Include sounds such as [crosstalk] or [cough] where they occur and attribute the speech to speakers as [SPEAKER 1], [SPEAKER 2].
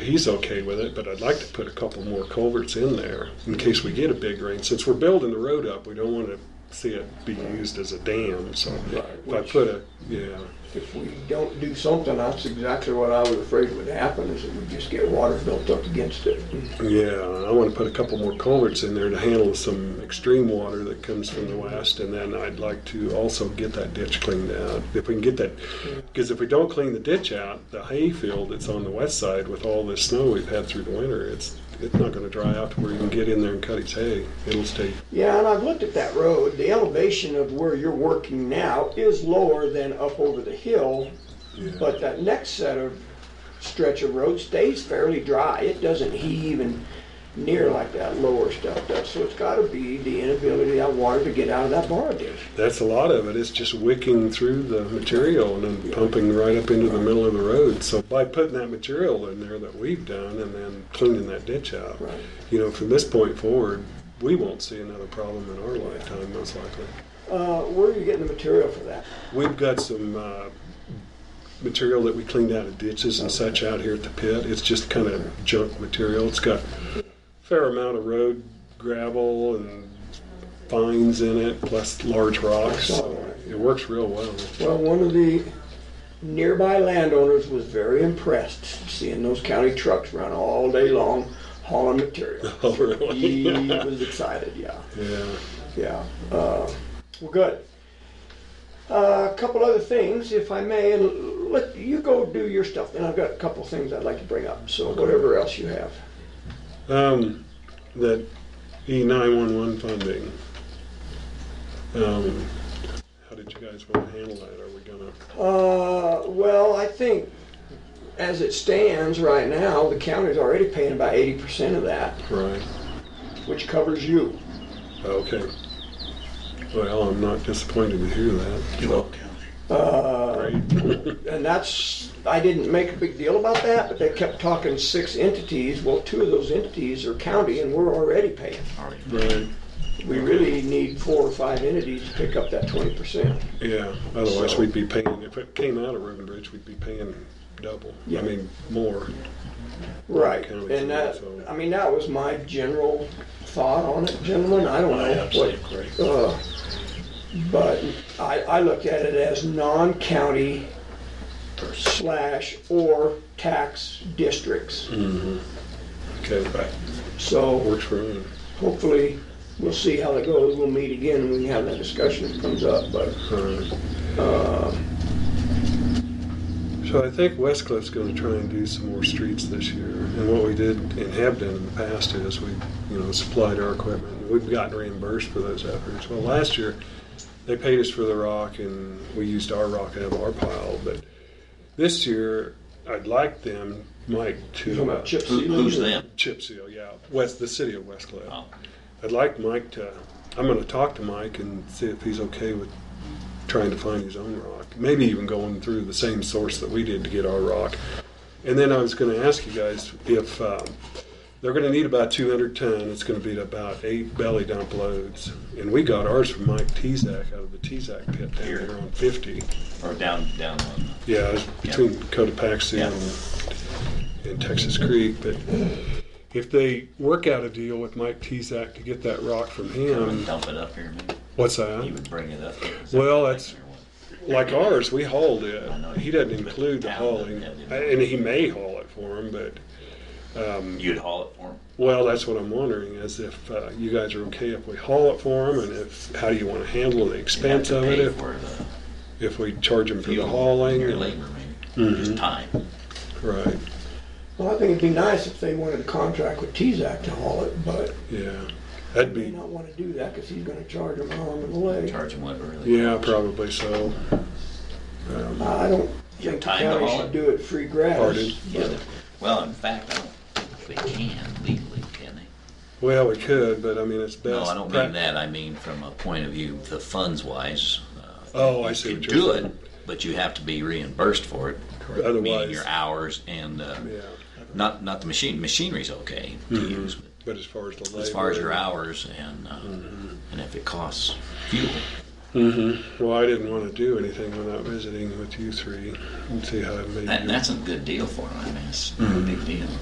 [SPEAKER 1] he's okay with it, but I'd like to put a couple more culverts in there in case we get a big rain. Since we're building the road up, we don't want to see it be used as a dam, so
[SPEAKER 2] Right,
[SPEAKER 1] if I
[SPEAKER 2] which-
[SPEAKER 1] put a, yeah,
[SPEAKER 2] If we don't do something, that's exactly what I was afraid would happen, is that we just get water built up against it.
[SPEAKER 1] yeah, I want to put a couple more culverts in there to handle some extreme water that comes from the west, and then I'd like to also get that ditch cleaned out. If we can get that, because if we don't clean the ditch out, the hayfield that's on the west side with all this snow we've had through the winter, it's, it's not gonna dry out to where you can get in there and cut its hay. It'll stay
[SPEAKER 2] Yeah, and I've looked at that road, the elevation of where you're working now is lower than up over the hill,
[SPEAKER 1] Yeah.
[SPEAKER 2] but that next set of stretch of road stays fairly dry. It doesn't heave and near like that lower stuff does, so it's gotta be the inability of that water to get out of that borrow ditch.
[SPEAKER 1] That's a lot of it. It's just wicking through the material and then pumping right up into the middle of the road. So by putting that material in there that we've done and then cleaning that ditch out,
[SPEAKER 2] Right.
[SPEAKER 1] you know, from this point forward, we won't see another problem in our lifetime, most likely.
[SPEAKER 2] Uh, where are you getting the material for that?
[SPEAKER 1] We've got some uh, material that we cleaned out of ditches and such out here at the pit. It's just kind of junk material. It's got a fair amount of road gravel and fines in it, plus large rocks. So it works real well.
[SPEAKER 2] Well, one of the nearby landowners was very impressed seeing those county trucks run all day long hauling material.
[SPEAKER 1] Oh, really?
[SPEAKER 2] He was excited, yeah,
[SPEAKER 1] yeah.
[SPEAKER 2] yeah. Uh, well, good. Uh, a couple other things, if I may, and let you go do your stuff. And I've got a couple things I'd like to bring up. So whatever else you have.
[SPEAKER 1] Um, that E E911 funding. Um, how did you guys want to handle that? Are we gonna?
[SPEAKER 2] Uh, well, I think as it stands right now, the county's already paying about 80% of that,
[SPEAKER 1] Right.
[SPEAKER 2] which covers you.
[SPEAKER 1] Okay. Well, I'm not disappointed to hear that.
[SPEAKER 2] Uh,
[SPEAKER 1] Great.
[SPEAKER 2] And that's, I didn't make a big deal about that, but they kept talking six entities. Well, two of those entities are county and we're already paying.
[SPEAKER 1] [laughs] right.
[SPEAKER 2] We really need four or five entities to pick up that twenty percent.
[SPEAKER 1] Yeah. Otherwise,
[SPEAKER 2] So-
[SPEAKER 1] we'd be paying. If it came out of Roden Bridge, we'd be paying double.
[SPEAKER 2] Yeah.
[SPEAKER 1] I mean, more.
[SPEAKER 2] Right,
[SPEAKER 1] County,
[SPEAKER 2] and that,
[SPEAKER 1] so-
[SPEAKER 2] I mean, that was my general thought on it, gentlemen. I don't
[SPEAKER 3] I
[SPEAKER 2] know
[SPEAKER 3] absolutely
[SPEAKER 2] what,
[SPEAKER 3] agree.
[SPEAKER 2] uh, but I, I looked at it as non-county slash or tax districts.
[SPEAKER 1] Mm-hmm. Okay.
[SPEAKER 2] So.
[SPEAKER 1] Works for me.
[SPEAKER 2] hopefully, we'll see how that goes. We'll meet again and we can have that discussion if it comes up, but,
[SPEAKER 1] Alright.
[SPEAKER 2] uh,
[SPEAKER 1] So I think Westcliff's going to try and do some more streets this year. And what we did and have done in the past is we, you know, supplied our equipment. We've gotten reimbursed for those efforts. Well, last year they paid us for the rock and we used our rock out of our pile. But this year I'd like them, Mike, to
[SPEAKER 2] you know, about chip
[SPEAKER 3] Who-
[SPEAKER 2] sealing.
[SPEAKER 3] Who's them?
[SPEAKER 1] chip seal. Yeah, West, the city of Westcliff.
[SPEAKER 3] Oh.
[SPEAKER 1] I'd like Mike to. I'm going to talk to Mike and see if he's okay with trying to find his own rock. Maybe even going through the same source that we did to get our rock. And then I was going to ask you guys if um, they're going to need about 200 ton. It's going to be about eight belly dump loads. And we got ours from Mike Tezak out of the Tezak pit down
[SPEAKER 3] Here.
[SPEAKER 1] here on 50.
[SPEAKER 3] Or down, down on,
[SPEAKER 1] Yeah, it was between Cotopaxi
[SPEAKER 3] Yeah.
[SPEAKER 1] and, and Texas Creek. But if they work out a deal with Mike Tezak to get that rock from
[SPEAKER 3] come
[SPEAKER 1] him,
[SPEAKER 3] and dump it up here, maybe.
[SPEAKER 1] what's
[SPEAKER 3] He
[SPEAKER 1] that?
[SPEAKER 3] would bring it up. here.
[SPEAKER 1] Well, that's- Like ours, we hauled it.
[SPEAKER 3] I know.
[SPEAKER 1] He doesn't include the
[SPEAKER 3] Down,
[SPEAKER 1] hauling,
[SPEAKER 3] yeah, yeah.
[SPEAKER 1] and he may haul it for him. But um,
[SPEAKER 3] You'd haul it for him?
[SPEAKER 1] well, that's what I'm wondering is if uh, you guys are okay if we haul it for him, and if how do you want to handle the
[SPEAKER 3] You'd have
[SPEAKER 1] expense
[SPEAKER 3] to
[SPEAKER 1] of it
[SPEAKER 3] pay
[SPEAKER 1] if,
[SPEAKER 3] For the
[SPEAKER 1] if we charge him for the
[SPEAKER 3] fuel,
[SPEAKER 1] hauling?
[SPEAKER 3] Your
[SPEAKER 1] and-
[SPEAKER 3] labor, maybe, just
[SPEAKER 1] Mm-hmm.
[SPEAKER 3] time.
[SPEAKER 1] Right.
[SPEAKER 2] Well, I think it'd be nice if they wanted a contract with T-Zac to haul it, but
[SPEAKER 1] Yeah. That'd
[SPEAKER 2] they may
[SPEAKER 1] be
[SPEAKER 2] not wanna do that, cause he's gonna charge them an arm and a leg.
[SPEAKER 3] Charge him whatever. they-
[SPEAKER 1] Yeah, probably so. Um,
[SPEAKER 2] I don't
[SPEAKER 3] Your
[SPEAKER 2] think the
[SPEAKER 3] time to
[SPEAKER 2] county
[SPEAKER 3] haul
[SPEAKER 2] should
[SPEAKER 3] it.
[SPEAKER 2] do it free gratis.
[SPEAKER 1] Pardon?
[SPEAKER 3] Yeah, they- Well, in fact, I don't think they can legally, can they?
[SPEAKER 1] well, we could, but I mean, it's best.
[SPEAKER 3] No, I don't
[SPEAKER 1] prac-
[SPEAKER 3] mean that. I mean from a point of view, the funds wise. uh,
[SPEAKER 1] Oh, I see
[SPEAKER 3] You
[SPEAKER 1] what
[SPEAKER 3] could
[SPEAKER 1] you're
[SPEAKER 3] do
[SPEAKER 1] saying.
[SPEAKER 3] it, but you have to be reimbursed for it. Meaning
[SPEAKER 1] Otherwise-
[SPEAKER 3] your hours and, uh,
[SPEAKER 1] Yeah, Mm-hmm.
[SPEAKER 3] not, not the machine, machinery's okay to use, but
[SPEAKER 1] but as far as the labor,
[SPEAKER 3] as far as your hours and uh, and if it costs fuel.
[SPEAKER 1] Well, I didn't want to do anything without visiting with you three and see how it made
[SPEAKER 3] That,
[SPEAKER 1] you.
[SPEAKER 3] that's a good deal for them. I mean, it's a big deal.